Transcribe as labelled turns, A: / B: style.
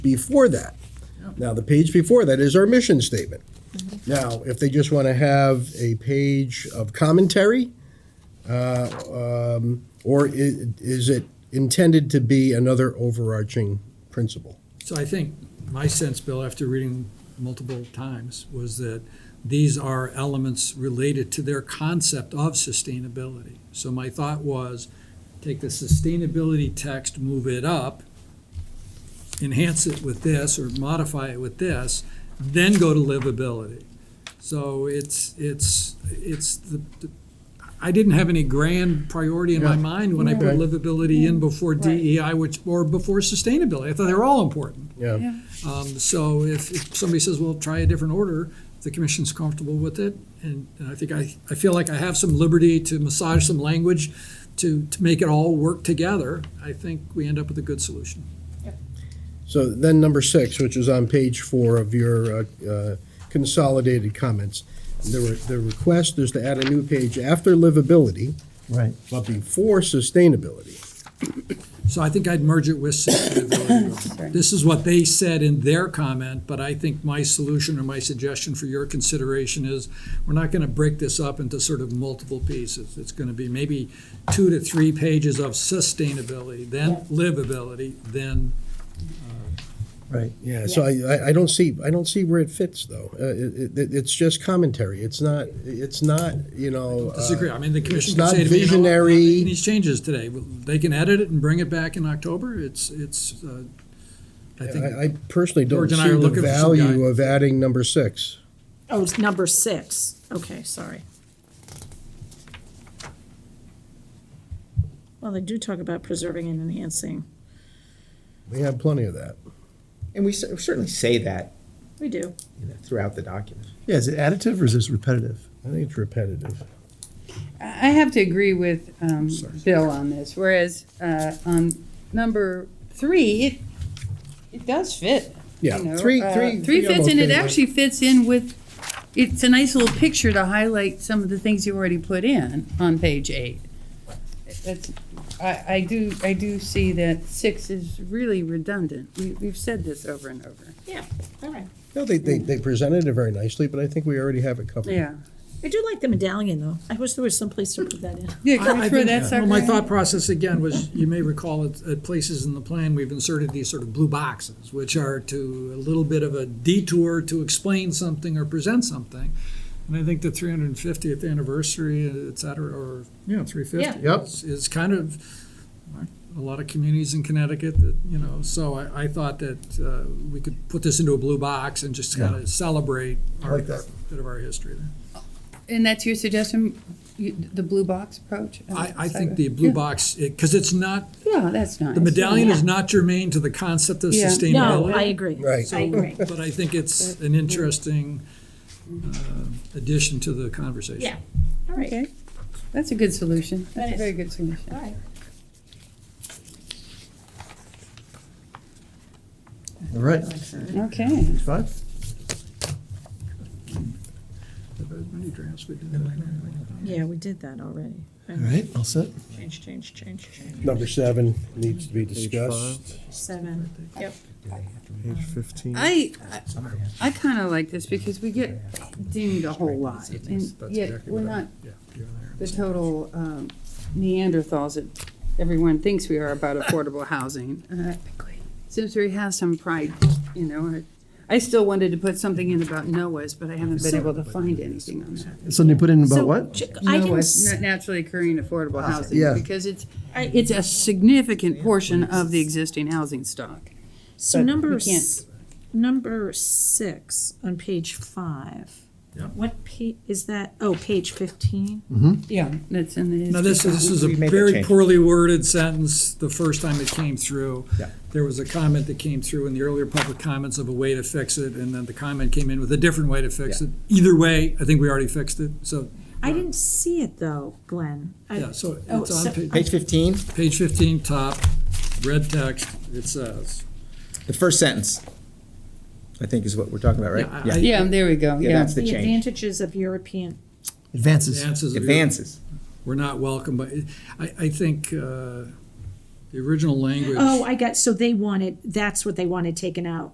A: before that. Now, the page before that is our mission statement. Now, if they just want to have a page of commentary, uh, um, or i- is it intended to be another overarching principle?
B: So I think my sense, Bill, after reading multiple times, was that these are elements related to their concept of sustainability. So my thought was, take the sustainability text, move it up, enhance it with this or modify it with this, then go to livability. So it's, it's, it's the, the- I didn't have any grand priority in my
A: Yeah.
B: mind when I put
A: Right.
B: livability in before
C: Right.
B: DEI, which, or before sustainability. I thought they were all important.
A: Yeah,
B: Um, So if if somebody says, well, try a different order, if the commission's comfortable with it, and and I think I, I feel like I have some liberty to massage some language to, to make it all work together, I think we end up with a good solution.
A: so then number six, which is on page four of your uh, uh, consolidated comments. The, re- the request is to add a new page after livability,
D: Right.
A: but before sustainability.
B: So I think I'd merge it with sustainability. This is what they said in their comment, but I think my solution or my suggestion for your consideration is, we're not gonna break this up into sort of multiple pieces. It's gonna be maybe two to three pages of sustainability, then livability, then
D: Right.
A: Yeah, so I, I- I don't see, I don't see where it fits, though. Uh, it, it, it's just commentary. It's not, it's not, you know. uh,
B: disagree. I mean, the commission
A: it's
B: can
A: not
B: say to me, you know, I'm not
A: visionary.
B: making these changes today. They can edit it and bring it back in October. It's, it's, uh, I
A: I,
B: think,
A: I personally don't
B: George
A: see
B: and I
A: the
B: are looking for some
A: value
B: guidance.
A: of adding number six.
C: Oh, it's number six. Okay, sorry. Well, they do talk about preserving and enhancing.
A: We have plenty of that.
E: And we cer- certainly say that
C: We do.
E: you know, throughout the document.
D: Yeah, is it additive or is this repetitive?
A: I think it's repetitive.
F: I have to agree with um, Bill on this, whereas uh, on number three, it, it does fit. you
A: Yeah,
F: know,
A: three-
F: uh,
A: three- three
F: Three fits,
A: almost
F: and it
A: fit.
F: actually fits in with, it's a nice little picture to highlight some of the things you already put in on page eight. That's, I, I do, I do see that six is really redundant. We, we've said this over and over.
C: Yeah, all right.
A: No, they, they, they presented it very nicely, but I think we already have it covered.
F: Yeah.
C: I do like the medallion, though. I wish there was some place to put that in.
F: Yeah,
B: I- I
F: go through
B: think-
F: that
B: Well, my
F: sucker.
B: thought process again was, you may recall at, at places in the plan, we've inserted these sort of blue boxes, which are to a little bit of a detour to explain something or present something. And I think the 350th anniversary, et cetera, or, you know, 350.
A: Yeah. Yep.
B: is- Is kind of, a lot of communities in Connecticut that, you know, so I, I thought that uh, we could put this into a blue box and just kind of celebrate our,
D: like that.
B: bit of our history there.
F: And that's your suggestion, you- the blue box approach?
B: I, I think the blue
F: Yeah.
B: box, because it's not
F: Yeah, that's nice.
B: The medallion is
C: Yeah.
B: not germane to the concept of
F: Yeah.
B: sustainability.
C: No, I agree.
A: Right.
C: I agree.
B: But I think it's an interesting uh, addition to the conversation.
C: Yeah, all right,
F: Okay, that's a good solution. That's a
C: is.
F: very good
C: all
F: solution.
C: right.
D: All right.
F: Okay.
D: Five?
B: As many drafts we did.
C: Yeah, we did that already.
D: All right, all set.
C: Change, change, change, change.
A: Number seven needs to be discussed.
C: Seven, yep.
D: Page fifteen.
F: I, I- I kind of like this because we get dinged a whole lot. And
B: That's
F: yet,
B: exactly
F: we're
B: what I-
F: not
B: yeah, you're there.
F: the total um, Neanderthals that everyone thinks we are about affordable housing. Uh, Seems we have some pride, you know. I I still wanted to put something in about NOAAs, but I haven't been able to find anything on that.
D: Something you put in
C: So,
D: about what?
C: chick- I didn't,
F: NOAAs,
C: s-
F: na- naturally occurring affordable housing.
D: yeah.
F: Because it's,
C: I-
F: it's a significant portion of the existing housing stock.
C: so
F: but
C: number,
F: we can't-
C: s- number six on page five.
B: Yeah.
C: What pa, is that? Oh, page fifteen?
F: Yeah. That's in the.
B: Now, this, this is a
E: We made that
B: very
E: change.
B: poorly worded sentence the first time it came through.
E: Yeah.
B: There was a comment that came through in the earlier public comments of a way to fix it, and then the comment came in with a different way to fix
E: Yeah.
B: it. Either way, I think we already fixed it, so,
C: I didn't see it though, Glenn. I-
B: yeah, so
C: Oh,
B: it's on
C: so-
B: page,
E: Page 15,
B: page fifteen, top, red text, it says,
E: the first sentence, I think is what we're talking about, right?
B: Yeah, I-
F: Yeah, there we go,
E: Yeah,
F: yeah.
E: that's the
C: The
E: change.
C: advantages of European,
D: Advances.
B: advances. of your-
E: Advances.
B: We're not welcome, but I, I think, uh, The original language.
C: Oh, I got, so they wanted, that's what they wanted taken out.